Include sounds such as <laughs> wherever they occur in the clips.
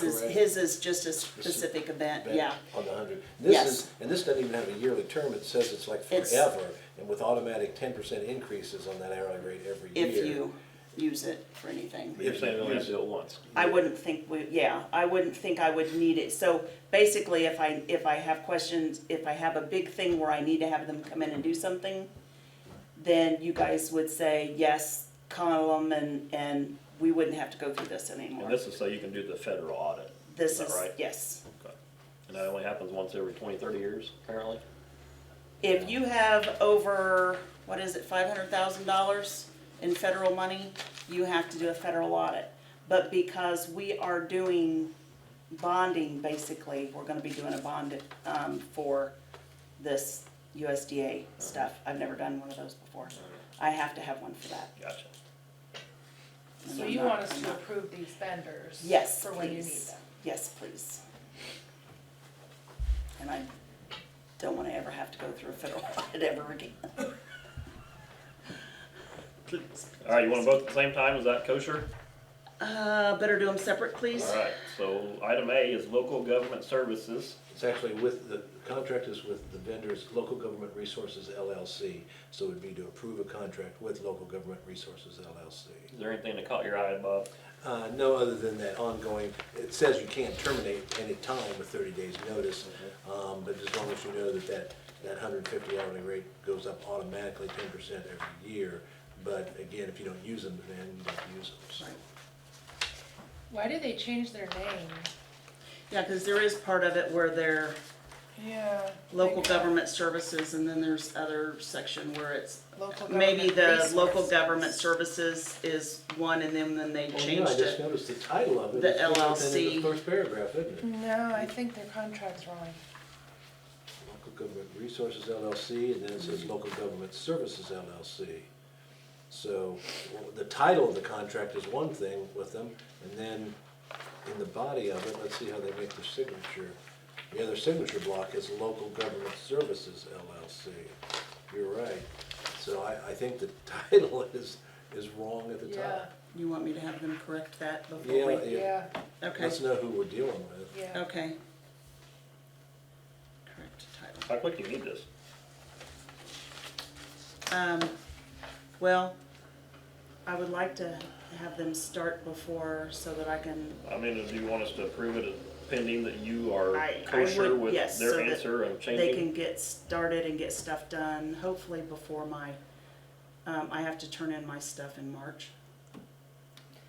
His is, Correct. his is just a specific event, back yeah. On the hundred. This Yes. is, and this doesn't even have a yearly term, it says it's like It's- forever, and with automatic ten percent increases on that hourly rate every year. If you use it for anything. You're saying we only have to do it once. I wouldn't think, we yeah, I wouldn't think I would need it. So basically, if I, if I have questions, if I have a big thing where I need to have them come in and do something, then you guys would say, yes, call them and, and we wouldn't have to go through this And anymore. this is so you can do the federal audit. This that is, right? yes. Okay. And that only happens once every 20, 30 years, apparently? If you have over, what is it, five hundred thousand dollars in federal money, you have to do a federal audit. But because we are doing bonding, basically, we're gonna be doing a bond, um, for this USDA stuff. I've never done one of those before. I have to have one for that. Gotcha. And So I'm you not- want us I'm to not- approve these vendors? Yes, For when you need please. them? Yes, please. And I don't wanna ever have to go through a federal <laughs> audit ever again. All right, you want them both at the same time? Is that kosher? Uh, better do them separate, please. All right, so item A is local government services. It's actually with, the contract is with the vendors, Local Government Resources LLC, so it'd be to approve a contract with Local Government Resources LLC. Is there anything that caught your eye, Bob? Uh, no other than that ongoing, it says you can't terminate any time with thirty days' notice, um, but as long as you know that that, that hundred and fifty hourly rate goes up automatically ten percent every year. But again, if you don't use them, then you don't use them, so. Why did they change their name? Yeah, because there is part of it where they're Yeah. local government services, and then there's other section where it's, Local maybe the government local resources. government services is one, and then, then they Well, Oh, yeah, changed I just it. noticed the title of it. The It's right within LLC. The first paragraph, isn't it? No, I think their contract's wrong. Local Government Resources LLC, and then it says Local Government Services LLC. So well, the title of the contract is one thing with them, and then in the body of it, let's see how they make their signature. The other signature block is Local Government Services LLC. You're right. So I, I think the <laughs> title is, is wrong at the Yeah, top. You want me to have them correct that before Yeah, we, yeah, okay, Let's know who we're dealing with. yeah. okay. Correct title. How quick do you need this? Um, well, I would like to have them start before, so that I can, I mean, do you want us to approve it pending that you are I- I kosher would- with yes, so their that answer they and can changing? get started and get stuff done, hopefully before my, um, I have to turn in my stuff in March.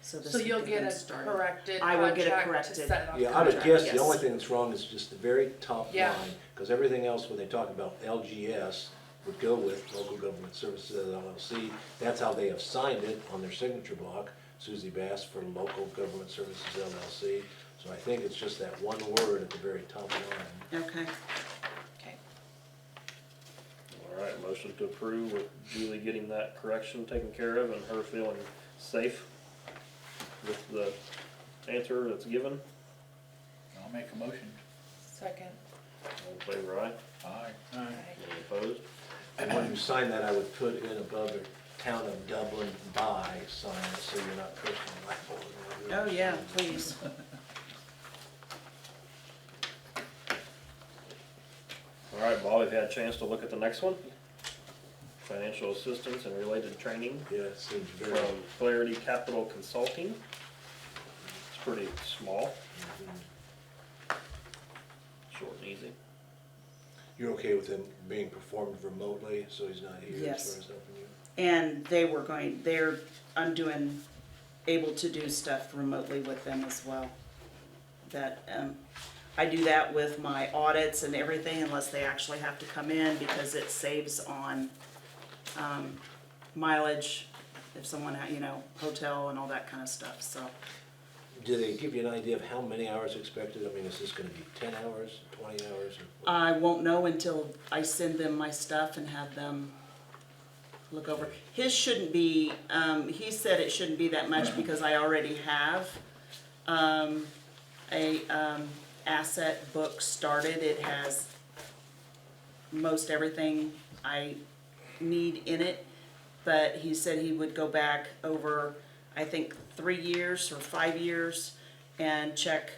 So this So would you'll get them a started. corrected I will contract get it to corrected. set it on. Yeah, I would Contract, guess the yes. only thing that's wrong is just the very top Yeah. line, because everything else, when they talk about LGS, would go with Local Government Services LLC. That's how they have signed it on their signature block, Susie Bass for Local Government Services LLC. So I think it's just that one word at the very top line. Okay, Okay. All right, motion to approve with Julie getting that correction taken care of and her feeling safe with the answer that's given. I'll make a motion. Second. All in favor, aye? Aye. Alright. Any opposed? And when you sign that, I would put in above it, Town of Dublin by sign, so you're not personally liable. oh yeah, please. All right, Bob, have you had a chance to look at the next one? Financial assistance and related training Yeah, it seems very. from Clarity Capital Consulting. It's pretty small, Mhm. short and easy. You're okay with him being performed remotely, so he's not here Yes. as far as helping you? And they were going, they're, I'm doing, able to do stuff remotely with them as well. That, um, I do that with my audits and everything unless they actually have to come in because it saves on, um, mileage. If someone, ha- you know, hotel and all that kind of stuff, so. Do they give you an idea of how many hours expected? I mean, is this gonna be ten hours, twenty hours? or what? I won't know until I send them my stuff and have them look over. His shouldn't be, um, he said it shouldn't be that much because I already have, um, a, um, asset book started. It has most everything I need in it. But he said he would go back over, I think, three years or five years and check